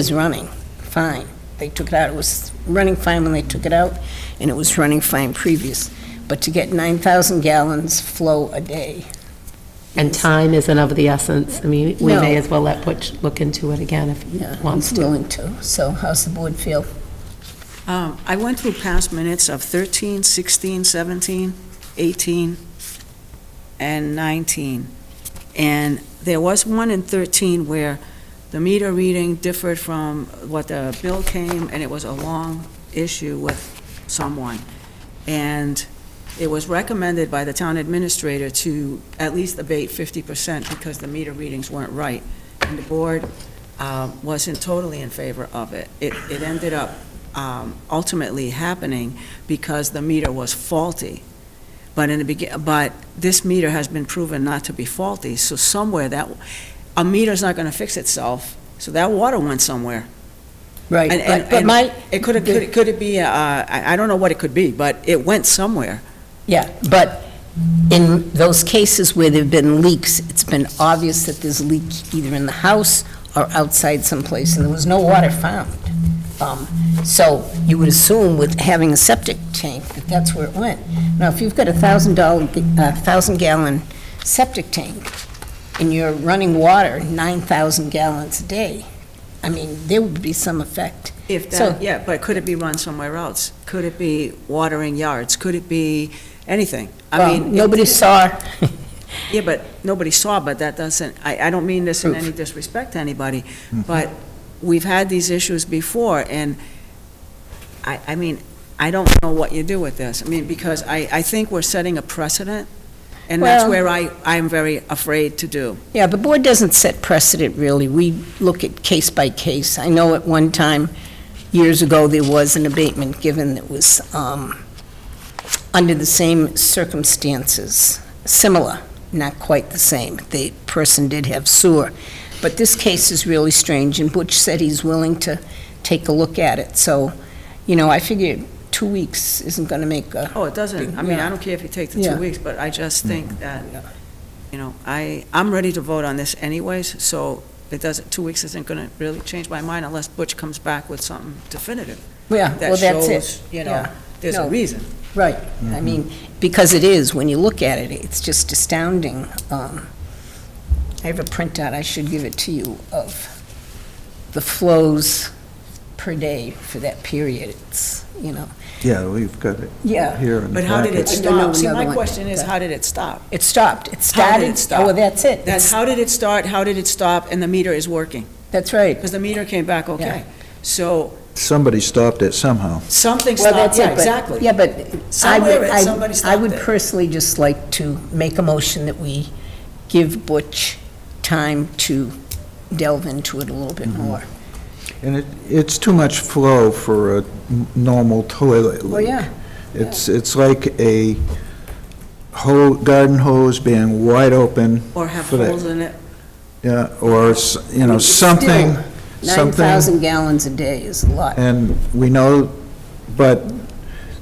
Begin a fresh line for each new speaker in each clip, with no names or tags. was running fine. They took it out, it was running fine when they took it out, and it was running fine previous. But to get 9,000 gallons flow a day,
And time isn't of the essence. I mean, we may as well let Butch look into it again if he
yeah,
wants
I'm
to.
willing to. So how's the board feel?
Um, I went through past minutes of 13, 16, 17, 18, and 19. And there was one in 13 where the meter reading differed from what the bill came, and it was a long issue with someone. And it was recommended by the town administrator to at least abate 50% because the meter readings weren't right. And the board uh, wasn't totally in favor of it. It it ended up um, ultimately happening because the meter was faulty. But in the begin, but this meter has been proven not to be faulty, so somewhere that, a meter's not gonna fix itself, so that water went somewhere.
Right,
And-
but
and-
but my,
It could have, could it- could it be, uh, I I don't know what it could be, but it went somewhere.
yeah, but in those cases where there've been leaks, it's been obvious that there's a leak either in the house or outside someplace, and there was no water found. Um, So you would assume with having a septic tank that that's where it went. Now, if you've got a thousand dollar, a thousand gallon septic tank, and you're running water nine thousand gallons a day, I mean, there would be some effect.
If
So-
that, yeah, but could it be run somewhere else? Could it be watering yards? Could it be anything? I
Well,
mean,
Um, nobody saw,
Yeah, but nobody saw, but that doesn't, I, I don't mean this in
Proof.
any disrespect to anybody, but we've had these issues before, and I, I mean, I don't know what you do with this. I mean, because I, I think we're setting a precedent, and that's
Well-
where I, I'm very afraid to do.
yeah, the board doesn't set precedent, really. We look at case by case. I know at one time, years ago, there was an abatement given that was um, under the same circumstances, similar, not quite the same. The person did have sewer. But this case is really strange, and Butch said he's willing to take a look at it. So, you know, I figure two weeks isn't going to make a
Oh, it doesn't, I mean, I don't care if you take the
Yeah.
two weeks, but I just think that, you know, I, I'm ready to vote on this anyways, so it doesn't, two weeks isn't gonna really change my mind unless Butch comes back with something definitive.
Yeah, well,
that
that's it.
shows, you know,
Yeah.
there's
No.
a reason.
Right,
Mm-hmm.
I mean, because it is, when you look at it, it's just astounding. Um, I have a printout, I should give it to you, of the flows per day for that period, it's, you know,
Yeah, we've got it
yeah.
here in the
But how did it
package. No,
packet.
no,
stop? See,
another
my
one.
question is, how did it stop?
It stopped, it
How
started.
did it stop?
Oh, well, that's it.
That's,
It's-
how did it start, how did it stop, and the meter is working?
That's right.
Because the meter came back okay. So
Somebody stopped it somehow.
something
Well,
stopped,
that's it,
yeah,
but-
exactly.
Yeah, but I
Somewhere
would,
it- somebody
I- I
stopped
would
it.
personally just like to make a motion that we give Butch time to delve into it a little bit
Mm-hmm.
more.
And it, it's too much flow for a n- normal toilet leak.
Well, yeah.
It's, it's like a hole, garden hose being wide open,
Or have
for that.
holes in it.
yeah, or, s- you know,
It's
something,
still
something.
9,000 gallons a day is a lot.
And we know, but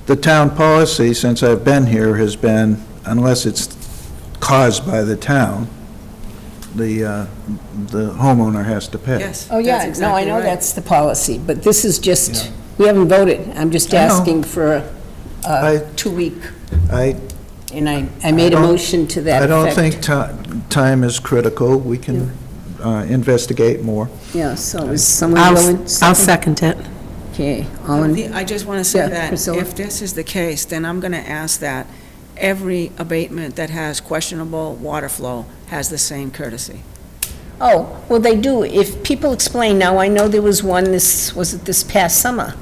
the town policy, since I've been here, has been, unless it's caused by the town, the, uh, the homeowner has to pay.
Yes.
Oh, yeah,
that's
no, I
exactly
know
right.
that's the policy, but this is just,
Yeah.
we haven't voted. I'm just
I know.
asking for a-
I-
a two-week,
I
and I, I made a
don't-
motion to that
I
effect.
don't think ti- time is critical. We can uh, investigate more.
Yeah, so is someone
I'll,
willing?
I'll second it.
Okay, all in,
The- I just want to
Yeah,
say that
Priscilla.
if this is the case, then I'm going to ask that every abatement that has questionable water flow has the same courtesy.
oh, well, they do. If people explain, now, I know there was one, this, was it this past summer?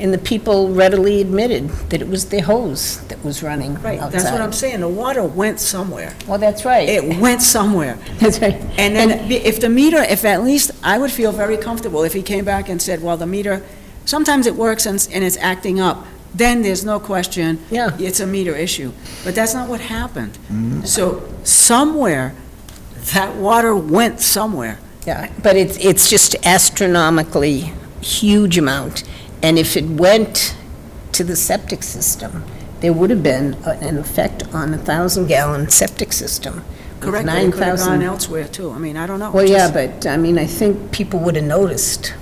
And the people readily admitted that it was their hose that was running
Right, that's what I'm
outside.
saying, the water went somewhere.
Well, that's right,
It went somewhere.
that's right.
And then if the meter, if at least, I would feel very comfortable if he came back and said, well, the meter, sometimes it works and, s- and it's acting up, then there's no question,
Yeah.
it's a meter issue. But that's not what happened. So somewhere, that water went somewhere.
Yeah, but it's, it's just astronomically huge amount, and if it went to the septic system, there would have been a- an effect on a thousand-gallon septic system. with
Correct, but it could have
9,000
gone elsewhere too. I mean, I don't know.
Well, yeah,
Just-
but, I mean, I think people would have noticed